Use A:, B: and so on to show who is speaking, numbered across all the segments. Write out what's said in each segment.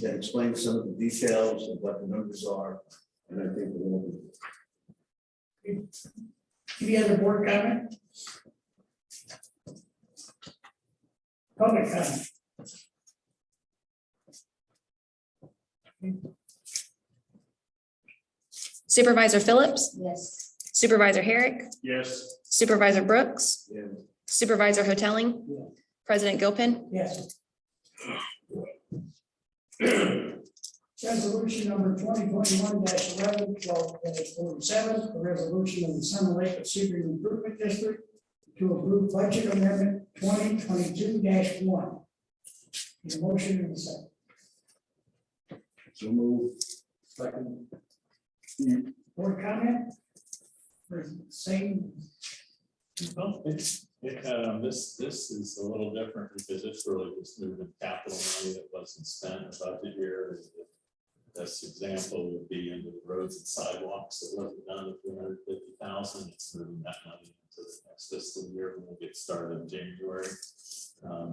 A: that explains some of the details of what the numbers are, and I think we'll.
B: Any other board comment? Public comment?
C: Supervisor Phillips,
D: Yes.
C: Supervisor Herrick,
E: Yes.
C: Supervisor Brooks,
A: Yeah,
C: Supervisor Hoteling,
B: Yeah.
C: President Gilpin,
B: Yes. Resolution number twenty twenty-one eleven, twelve forty-seven, a resolution of the Summer Lake of Sebring Improvement District to approve budget amendment twenty twenty-two one. motion and a second.
A: so move.
B: Board comment? Or Same.
E: Well, it's, it, um, this, this is a little different because it's really just moving capital money that wasn't spent about the year. This example would be into the roads and sidewalks that wasn't done with three hundred fifty thousand, it's moving that money into the next fiscal year when we get started in January. Um,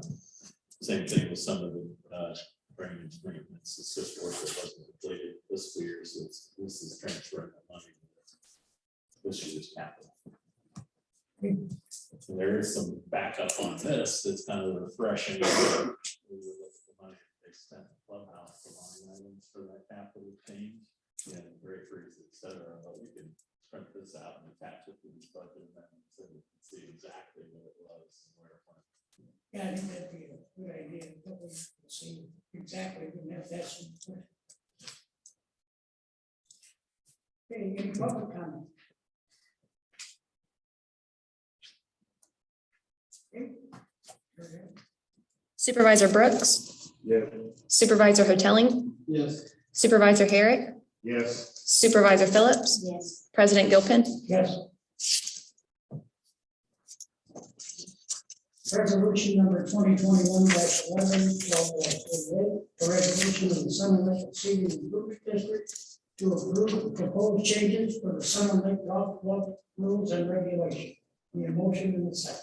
E: Same thing with some of the, uh, drainage agreements, it's just work that wasn't completed this year, so it's, this is transferring the money. This year's capital. And There is some backup on this that's kind of refreshing. We were looking at the money They spent in clubhouse for line items for that capital change and breakers, et cetera, but we can print this out and attach it to this budget amendment so we can see exactly what it was and where it went.
B: Yeah, I think that'd be a good idea, but we see exactly when that- that's. Okay, any public comment? Okay. Go ahead.
C: Supervisor Brooks,
A: Yeah,
C: Supervisor Hoteling,
E: Yes.
C: Supervisor Herrick,
A: yes,
C: Supervisor Phillips,
D: Yes.
C: President Gilpin,
B: Yes. Resolution number twenty twenty-one eleven, twelve forty-eight, a resolution of the Summer Lake City Improvement District to approve proposed changes for the Summer Lake Golf Club rules and regulations. Need a motion in the second.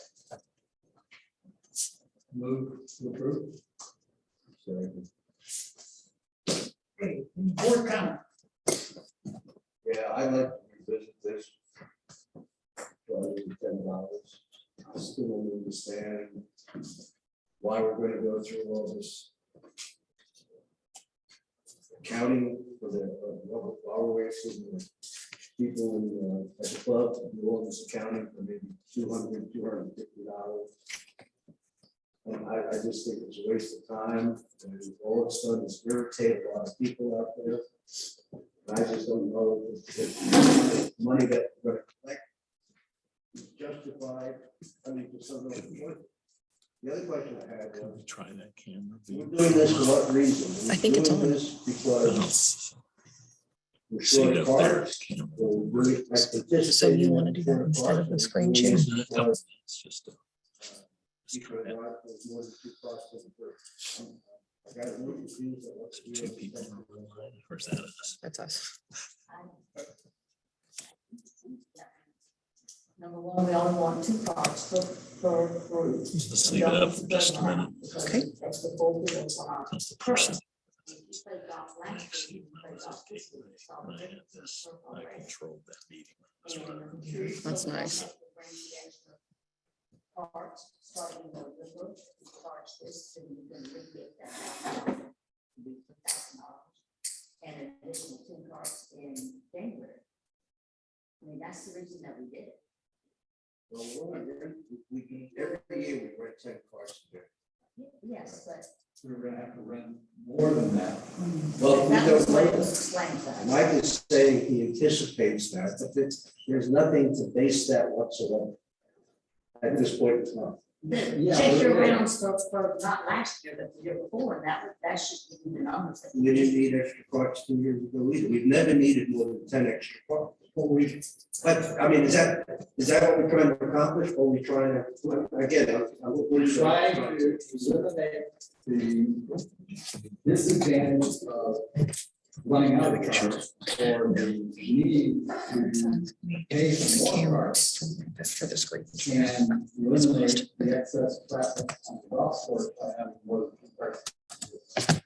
E: Move to approve.
A: so,
B: Okay, any board comment?
A: yeah, I like to revisit this. Rather than ten dollars, I still don't understand why we're gonna go through all this. Accounting for the, uh, our ways, the people in, uh, at the club, to do all this accounting for maybe two hundred, two hundred and fifty dollars. And I, I just think it's a waste of time, and all it's done is irritate a lot of people out there. And I just don't know if the money that we're gonna collect is justified, I mean, for something like this. The other question I had was,
E: Try that camera.
A: we're doing this for what reason?
C: I think it's
A: We're doing
C: on.
A: this Because we're short of parts, or we're really like participants
C: So you wanna do that
A: in short
C: instead of
A: parts,
C: the
A: and
C: screen
A: we're
C: share?
A: doing this
E: just.
A: because we want more than two parts to the bird. I got a little confused at what to do.
C: that's us.
D: Number one, we only want two cards per, per group. Let's
F: leave it up for just a minute.
C: Okay.
D: That's the full deal, so I-
F: That's the person.
D: if you play golf last year, you play golf this year, it's all
F: I
D: different.
F: had this, I controlled that meeting. That's what I remember.
C: That's nice.
D: Cards, starting with the book, cards this, and you can really get that. out. Be $1,000. And an additional two cards in January. I mean, that's the reason that we did it.
A: Well, we're not gonna- we- we can, every year we rent ten cars there.
D: Yes, but
A: We're gonna have to rent more than that. Well, we
D: that was
A: don't
D: what it
A: rent.
D: was explained to us.
A: Mike is saying he anticipates that, but it's, there's nothing to base that whatsoever. At this point in time.
D: The
A: Yeah,
D: check your
A: yeah.
D: rounds for, for not last year, but the year before, and that, was- that should be the numbers. that
A: We didn't need extra parts two years ago either. We've never needed more than ten extra parts. But we, but, I mean, is that, is that what we're trying to accomplish? Or we trying to, again, I'm. I'm-
G: We're trying to eliminate the disadvantage of running out of cars or the need to pay for more cars
C: For the screen.
G: and eliminate the excess traffic on the golf course by having more. cars.